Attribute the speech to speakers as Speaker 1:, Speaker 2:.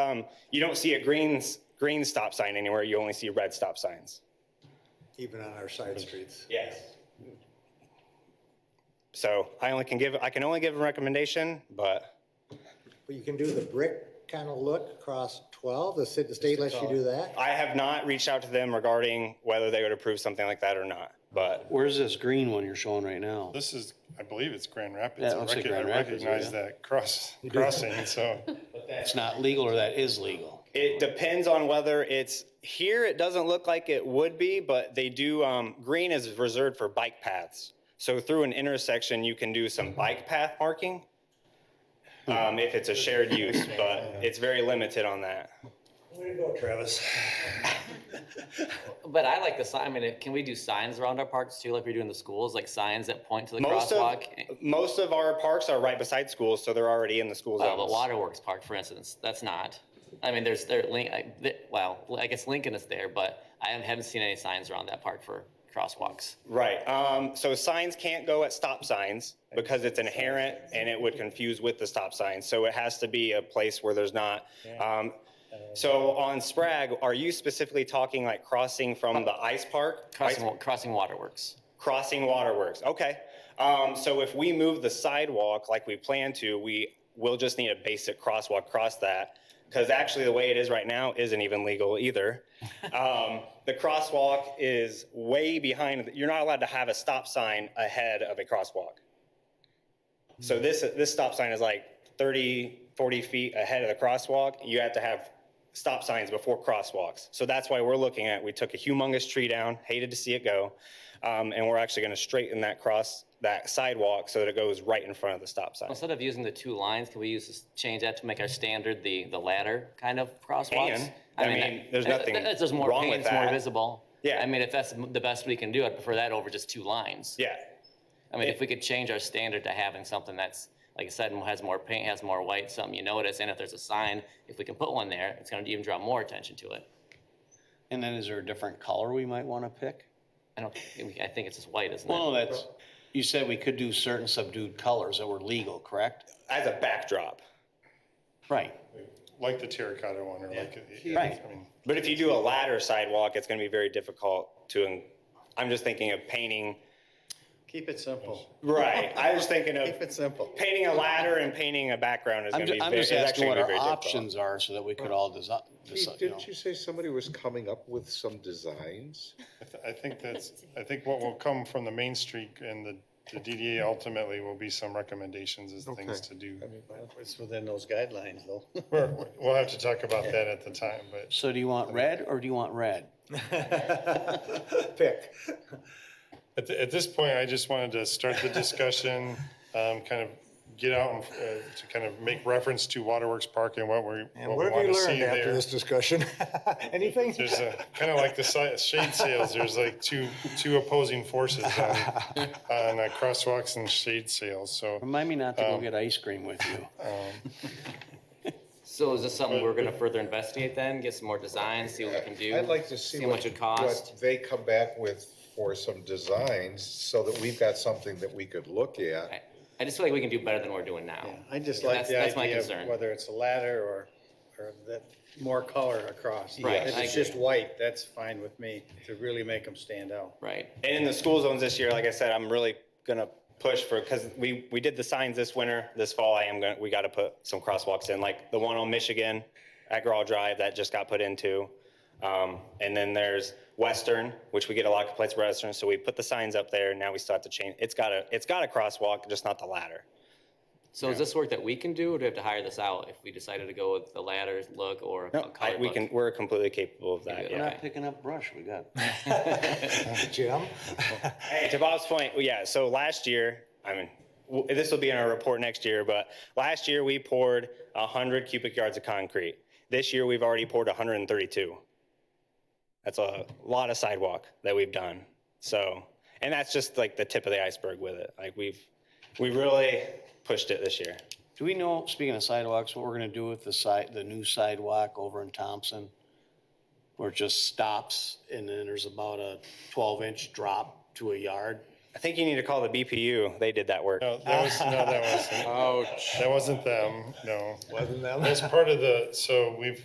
Speaker 1: Um, you don't see a green, green stop sign anywhere, you only see red stop signs.
Speaker 2: even on our side streets.
Speaker 1: Yes. So I only can give, I can only give a recommendation, but
Speaker 2: But you can do the brick kind of look across 12, the city, the state lets you do that?
Speaker 1: I have not reached out to them regarding whether they would approve something like that or not, but
Speaker 3: Where's this green one you're showing right now?
Speaker 4: This is, I believe it's Grand Rapids.
Speaker 3: Yeah, it
Speaker 4: I
Speaker 3: looks like
Speaker 4: rec-
Speaker 3: Grand
Speaker 4: I
Speaker 3: Rapids,
Speaker 4: recognize
Speaker 3: yeah.
Speaker 4: that cross, crossing, so.
Speaker 3: It's not legal or that is legal?
Speaker 1: it depends on whether it's, here it doesn't look like it would be, but they do, um, green is reserved for bike paths. So through an intersection, you can do some bike path marking, um, if it's a shared use, but it's very limited on that.
Speaker 2: Way to go, Travis.
Speaker 5: But I like the sign. I mean, if- can we do signs around our parks too, like we do in the schools, like signs that point to the
Speaker 1: Most of,
Speaker 5: crosswalk?
Speaker 1: most of our parks are right beside schools, so they're already in the school
Speaker 5: Well, Oh, but
Speaker 1: zones.
Speaker 5: Waterworks Park, for instance, that's not. I mean, there's there link. I- th- Well, I guess Lincoln is there, but I haven't seen any signs around that park for crosswalks.
Speaker 1: Right, um, so signs can't go at stop signs because it's inherent and it would confuse with the stop sign, so it has to be a place where there's not. Um, so on Sprague, are you specifically talking like crossing from the ice park?
Speaker 5: Crossing
Speaker 1: Ice-
Speaker 5: wa- crossing waterworks.
Speaker 1: Crossing waterworks, okay. Um, so if we move the sidewalk like we plan to, we will just need a basic crosswalk across that. Because actually, the way it is right now isn't even legal either. Um, the crosswalk is way behind, you're not allowed to have a stop sign ahead of a crosswalk. So this, this stop sign is like 30, 40 feet ahead of the crosswalk. You have to have stop signs before crosswalks. So that's why we're looking at, we took a humongous tree down, hated to see it go. Um, and we're actually going to straighten that cross, that sidewalk so that it goes right in front of the stop sign.
Speaker 5: Instead of using the two lines, can we use this, change that to make our standard the the ladder kind of crosswalks?
Speaker 1: Can. I mean,
Speaker 5: that-
Speaker 1: there's
Speaker 5: that-
Speaker 1: nothing
Speaker 5: that- There's more
Speaker 1: wrong
Speaker 5: paint,
Speaker 1: with
Speaker 5: it's more
Speaker 1: that.
Speaker 5: visible.
Speaker 1: Yeah.
Speaker 5: I mean, if that's the best we can do, I'd prefer that over just two lines.
Speaker 1: Yeah,
Speaker 5: I mean, if we could change our standard to having something that's, like I said, has more paint, has more white, something you notice, and if there's a sign, if we can put one there, it's gonna even draw more attention to it.
Speaker 3: And then is there a different color we might want to pick?
Speaker 5: I don't, I think it's just white, isn't it?
Speaker 3: Well, no, that's, you said we could do certain subdued colors that were legal, correct?
Speaker 1: as a backdrop.
Speaker 3: Right.
Speaker 4: Like the terracotta one, or like. yeah,
Speaker 3: Right.
Speaker 4: I mean,
Speaker 1: But if you do a ladder sidewalk, it's going to be very difficult to, I'm just thinking of painting.
Speaker 6: Keep it simple.
Speaker 1: Right, I was thinking of
Speaker 6: Keep it simple.
Speaker 1: painting a ladder and painting a background is
Speaker 3: I'm,
Speaker 1: going to
Speaker 3: ju-
Speaker 1: be.
Speaker 3: I'm
Speaker 1: ve-
Speaker 3: just
Speaker 1: is
Speaker 3: asking
Speaker 1: actually
Speaker 3: what
Speaker 1: gonna
Speaker 3: our
Speaker 1: be very difficult.
Speaker 3: options are so that we could all design, you know.
Speaker 7: Didn't you say somebody was coming up with some designs?
Speaker 4: I th- I think that's, I think what will come from the Main Street and the, the DDA ultimately will be some recommendations as things to do.
Speaker 6: It's within those guidelines, though.
Speaker 4: We're- We'll have to talk about that at the time, but
Speaker 3: So do you want red or do you want red?
Speaker 2: Pick.
Speaker 4: at, the- at this point, I just wanted to start the discussion, um, kind of get out and, uh, to kind of make reference to Waterworks Park and what we,
Speaker 2: And
Speaker 4: what
Speaker 2: what
Speaker 4: we
Speaker 2: have
Speaker 4: want
Speaker 2: you
Speaker 4: to see
Speaker 2: learned
Speaker 4: there.
Speaker 2: after this discussion? Anything?
Speaker 4: There's a, kind of like the si- shade sales, there's like two, two opposing forces on, on uh, crosswalks and shade sales, so.
Speaker 3: Remind me not to
Speaker 1: Um,
Speaker 3: go get ice cream with you.
Speaker 5: So is this something we're gonna further investigate then, get some more designs, see what we can do?
Speaker 7: I'd like to see
Speaker 5: how
Speaker 7: what,
Speaker 5: much it costs.
Speaker 7: what they come back with for some designs so that we've got something that we could look
Speaker 5: I
Speaker 7: at.
Speaker 5: I just feel like we can do better than we're doing now.
Speaker 6: I just
Speaker 5: Yeah,
Speaker 6: like the
Speaker 5: that's- that's my
Speaker 6: idea
Speaker 5: concern.
Speaker 6: of whether it's a ladder or, or that more color across.
Speaker 5: Right,
Speaker 6: If
Speaker 5: I
Speaker 6: it's just white, that's fine with me to really make them stand out.
Speaker 5: Right,
Speaker 1: And in the school zones this year, like I said, I'm really gonna push for, because we, we did the signs this winter, this fall, I am gonna, we gotta put some crosswalks in, like the one on Michigan at Grawl Drive that just got put into. Um, and then there's Western, which we get a lot of complaints about Western, so we put the signs up there, now we still have to change, it's got a, it's got a crosswalk, just not the ladder.
Speaker 5: so is this work that we can do, or do we have to hire this out if we decided to go with the ladder look or a
Speaker 1: No, I-
Speaker 5: colored
Speaker 1: we
Speaker 5: look?
Speaker 1: can, we're completely capable of that,
Speaker 5: it.
Speaker 3: We're
Speaker 1: yeah.
Speaker 3: not picking up brush, we got.
Speaker 2: Jim?
Speaker 1: Hey, to Bob's point, well, yeah, so last year, I mean, w- this will be in our report next year, but last year we poured 100 cubic yards of concrete. This year, we've already poured 132. That's a lot of sidewalk that we've done. So, and that's just like the tip of the iceberg with it. Like we've, we really pushed it this year.
Speaker 3: Do we know, speaking of sidewalks, what we're gonna do with the side, the new sidewalk over in Thompson? Where it just stops and then there's about a twelve inch drop to a yard?
Speaker 1: I think you need to call the BPU. They did that work.
Speaker 4: No, that was, no, that wasn't,
Speaker 8: Ouch.
Speaker 4: that wasn't them, no.
Speaker 6: Wasn't that?
Speaker 4: That's part of the, so we've,